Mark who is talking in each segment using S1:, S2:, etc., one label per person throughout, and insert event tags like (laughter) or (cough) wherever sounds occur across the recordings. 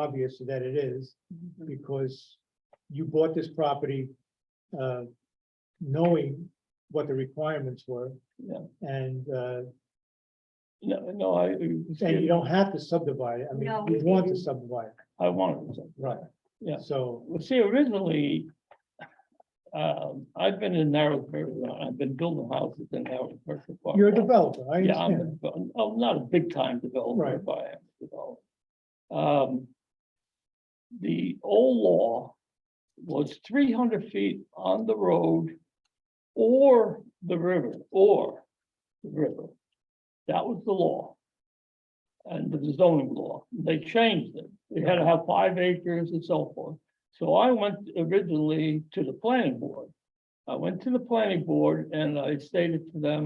S1: obvious that it is,
S2: Mm-hmm.
S1: because you bought this property uh, knowing what the requirements were.
S2: Yeah.
S1: And, uh,
S2: No, no, I,
S1: and you don't have to subdivide it. I mean,
S3: No,
S1: you
S3: we
S1: want to
S3: didn't.
S1: subdivide, it,
S2: I wanted to.
S1: right?
S2: Yeah.
S1: So,
S2: Well, see, originally, um, I've been in Narrowsburg, I've been building houses in Narrowsburg. for quite a
S1: you're a
S2: while.
S1: developer, I
S2: Yeah, I'm,
S1: understand.
S2: a- I'm not a big time developer,
S1: Right.
S2: but I am a developer. Um. The old law was three hundred feet on the road or the river, or the river. That was the law. And the zoning law, they changed it. They had to have five acres and so forth. So I went originally to the planning board. I went to the planning board and I stated to them,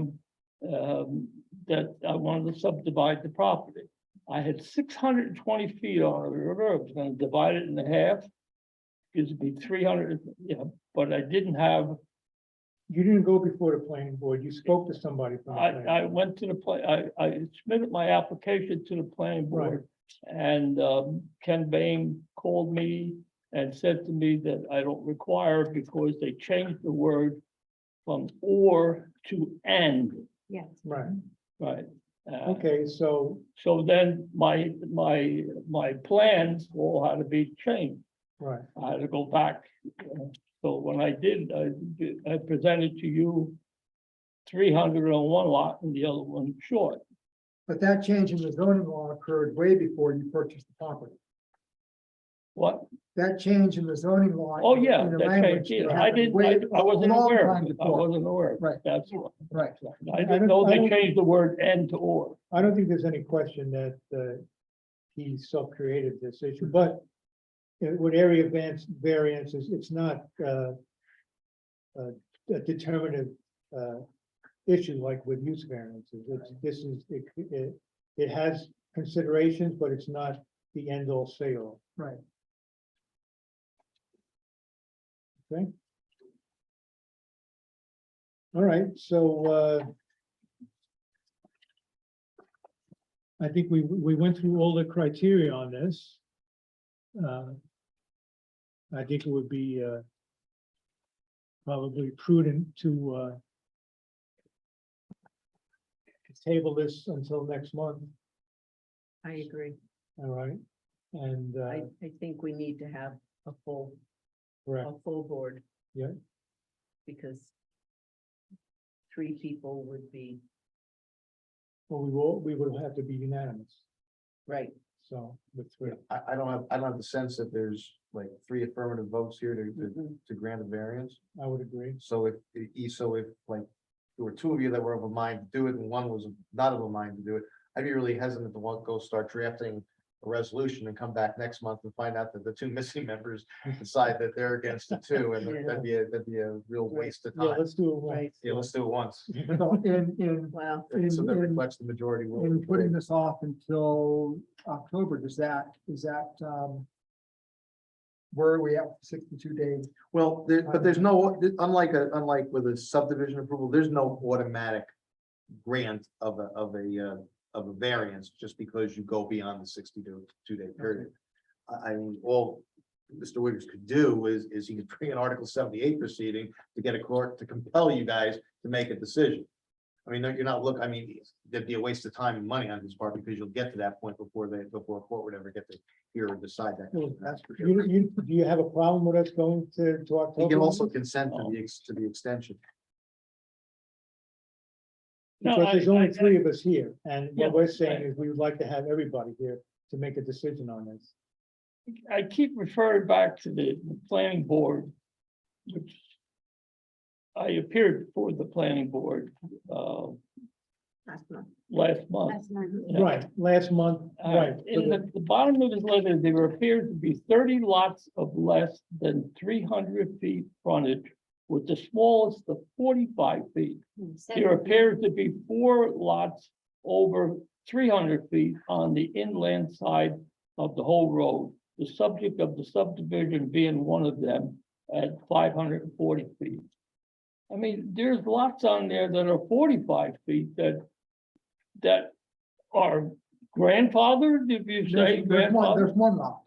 S2: um, that I wanted to subdivide the property. I had six hundred and twenty feet on the river, I was gonna divide it in half. Gives me three hundred, yeah, but I didn't have,
S1: You didn't go before the planning board. You spoke to somebody from the
S2: I,
S1: planning.
S2: I went to the play, I, I submitted my application to the planning board. And, um, Ken Bain called me and said to me that I don't require it because they changed the word from or to and,
S3: Yes.
S1: Right,
S2: right? Uh,
S1: okay, so
S2: So then my, my, my plans all had to be changed.
S1: Right,
S2: I had to go back. uh, So when I did, I, did- I presented to you three hundred on one lot and the other one short.
S1: but that change in the zoning law occurred way before you purchased the property.
S2: What?
S1: That change in the zoning law.
S2: Oh, yeah,
S1: in the
S2: that
S1: language
S2: changed. it. I
S1: happened
S2: didn't,
S1: way-
S2: I- I wasn't
S1: long
S2: aware.
S1: time
S2: of it. I
S1: before.
S2: wasn't aware. of it.
S1: Right.
S2: That's what.
S1: Right.
S2: I
S1: I don't-
S2: didn't know
S1: I
S2: they
S1: don't-
S2: changed the word and to or.
S1: I don't think there's any question that uh, he self-created this issue, but it- with area advance variances, it's not uh, uh, a determinative uh, issue like with use variances. It's, this is, it, it, it has considerations, but it's not the end all say all. Right. Okay. All right, so uh, I think we, we went through all the criteria on this. Uh, I think it would be, uh, probably prudent to, uh, table this until next month,
S3: I agree.
S1: all right? And,
S3: I,
S1: uh,
S3: I think we need to have a full,
S1: correct,
S3: a full board.
S1: Yeah.
S3: Because three people would be,
S1: well, we will, we would have to be unanimous,
S3: right,
S1: so, with three.
S4: I, I don't have, I don't have the sense that there's like three affirmative votes here to, to,
S1: Mm-hmm.
S3: Mhm.
S4: to grant a variance.
S1: I would agree,
S4: So if, e- so if like, there were two of you that were of a mind to do it and one was not of a mind to do it, I'd be really hesitant to want, go start drafting a resolution and come back next month and find out that the two (laughs) missing members decide that they're against the two, and that'd be, a that'd be a real waste of
S1: yeah,
S4: time.
S1: let's do uh, it once.
S3: right.
S4: Yeah, let's do it once,
S5: In, in,
S3: Wow,
S4: so
S5: In-
S4: that
S5: in-
S4: reflects the majority. will.
S5: in putting this off until October, does that, is that, um, where are we at, sixty-two days?
S4: Well, there, but there's no, unlike, a unlike with a subdivision approval, there's no automatic grant of a, of a, uh, of a variance, just because you go beyond the sixty to two day period. I, I mean, all Mr. Wiggers could do is, is he could bring an Article seventy-eight proceeding to get a court to compel you guys to make a decision. I mean, you're not look, I mean, there'd be a waste of time and money on his part, because you'll get to that point before they, before a court would ever get to hear or decide that.
S1: Well,
S4: That's for sure.
S1: You, you, do you have a problem with us going to, to October?
S4: He can also
S1: then?
S4: consent to the, ex- to the extension.
S2: No,
S1: Because
S2: I-
S1: there's only
S2: I-
S1: three of us here, and
S2: Yeah,
S1: what we're saying
S2: right.
S1: is we would like to have everybody here to make a decision on this.
S2: I keep referring back to the the planning board, which I appeared before the planning board, uh,
S3: last month,
S2: last
S1: Oh.
S2: month.
S3: last month.
S2: Yeah.
S1: Right, last month,
S2: All right,
S1: right, for
S2: in
S1: the-
S2: the, the bottom of his letter, there appeared to be thirty lots of less than three hundred feet frontage, with the smallest of forty-five feet. There appears to be four lots over three hundred feet on the inland side of the whole road. The subject of the subdivision being one of them at five hundred and forty feet. I mean, there's lots on there that are forty-five feet that, that are grandfathered, if you
S5: There's
S2: say
S5: there's one,
S2: grandfathered.
S5: there's one lot,